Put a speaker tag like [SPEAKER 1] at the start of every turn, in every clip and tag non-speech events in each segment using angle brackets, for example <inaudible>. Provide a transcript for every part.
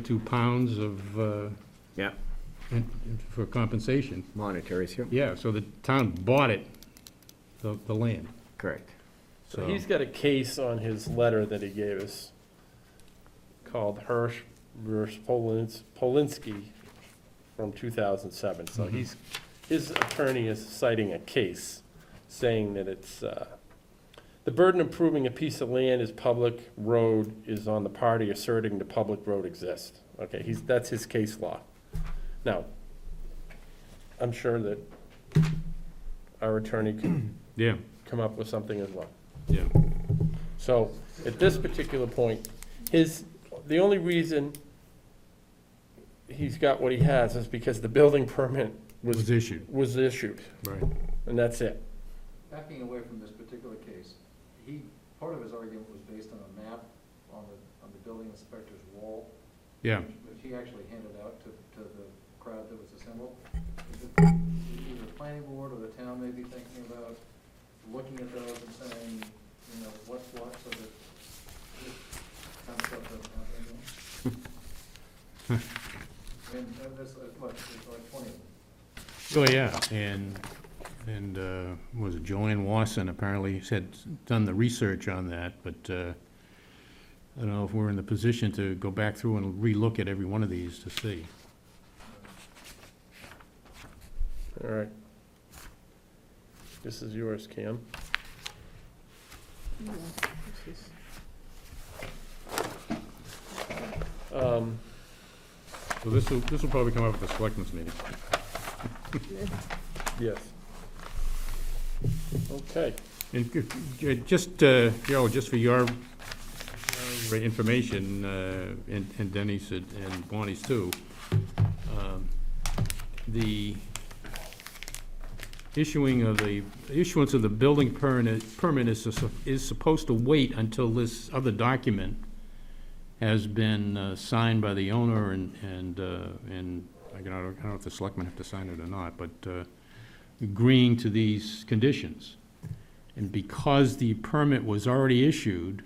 [SPEAKER 1] two pounds of, uh,
[SPEAKER 2] Yeah,
[SPEAKER 1] in- in- for compensation.
[SPEAKER 2] monetary, yeah,
[SPEAKER 1] Yeah, so the town bought it, the, the land.
[SPEAKER 2] correct.
[SPEAKER 3] So he's got a case on his letter that he gave us called Hirsch versus Polins- Polinsky from 2007. So he's, his attorney is citing a case saying that it's, uh, the burden of proving a piece of land is public road is on the party asserting the public road exists. Okay, he's, that's his case law. Now, I'm sure that our attorney can
[SPEAKER 1] Yeah,
[SPEAKER 3] come up with something as well.
[SPEAKER 1] yeah.
[SPEAKER 3] So, at this particular point, his, the only reason he's got what he has is because the building permit
[SPEAKER 1] Was
[SPEAKER 3] was,
[SPEAKER 1] issued,
[SPEAKER 3] was issued,
[SPEAKER 1] right.
[SPEAKER 3] and that's it.
[SPEAKER 4] Backing away from this particular case, he, part of his argument was based on a map on the, on the building inspector's wall,
[SPEAKER 1] Yeah,
[SPEAKER 4] which he actually handed out to, to the crowd that was assembled. Either the planning board or the town may be thinking about looking at those and saying, you know, what's what, so that this kind of stuff doesn't happen again. And uh, there's, uh, what, there's like twenty of them.
[SPEAKER 1] oh, yeah, and, and, uh, was it Joanne Wasson apparently had done the research on that, but, uh, I don't know if we're in the position to go back through and relook at every one of these to see.
[SPEAKER 3] All right. This is yours, Cam. Um,
[SPEAKER 1] So this will, this will probably come up at the selectmen's meeting.
[SPEAKER 3] yes. Okay,
[SPEAKER 1] And c- j- just, uh, Joe, just for your your information, uh, and and Denny's and- and Bonnie's too, um, the issuing of the, issuance of the building permit permit is su- is supposed to wait until this other document has been uh, signed by the owner and, and, uh, and, I don't know I don't know if the selectmen have to sign it or not, but uh, agreeing to these conditions. And because the permit was already issued,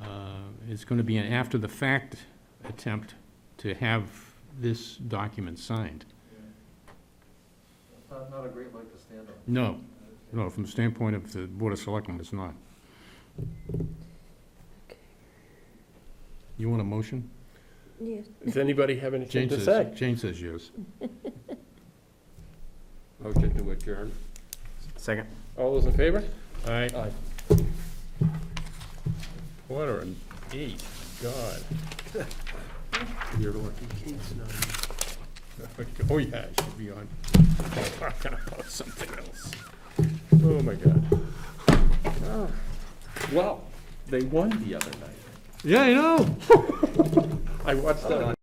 [SPEAKER 1] uh, it's going to be an after-the-fact attempt to have this document signed.
[SPEAKER 4] It's not, not a great leg to stand on.
[SPEAKER 1] No, no, from the standpoint of the Board of Selectmen, it's not. You want a motion?
[SPEAKER 5] Yes,
[SPEAKER 3] does anybody have
[SPEAKER 1] Jane
[SPEAKER 3] anything to
[SPEAKER 1] says-
[SPEAKER 3] say?
[SPEAKER 1] Jane says yes.
[SPEAKER 3] Motion to adjourn.
[SPEAKER 2] Second?
[SPEAKER 3] All those in favor?
[SPEAKER 1] All right.
[SPEAKER 3] Aye.
[SPEAKER 1] Quarter and eight, God.
[SPEAKER 2] <laughs> You're lucky.
[SPEAKER 1] <laughs> Oh, yeah, it should be on. <laughs> Talking about something else. Oh, my God.
[SPEAKER 3] Well, Ah. they won the other night.
[SPEAKER 1] Yeah, I know.
[SPEAKER 3] I watched that.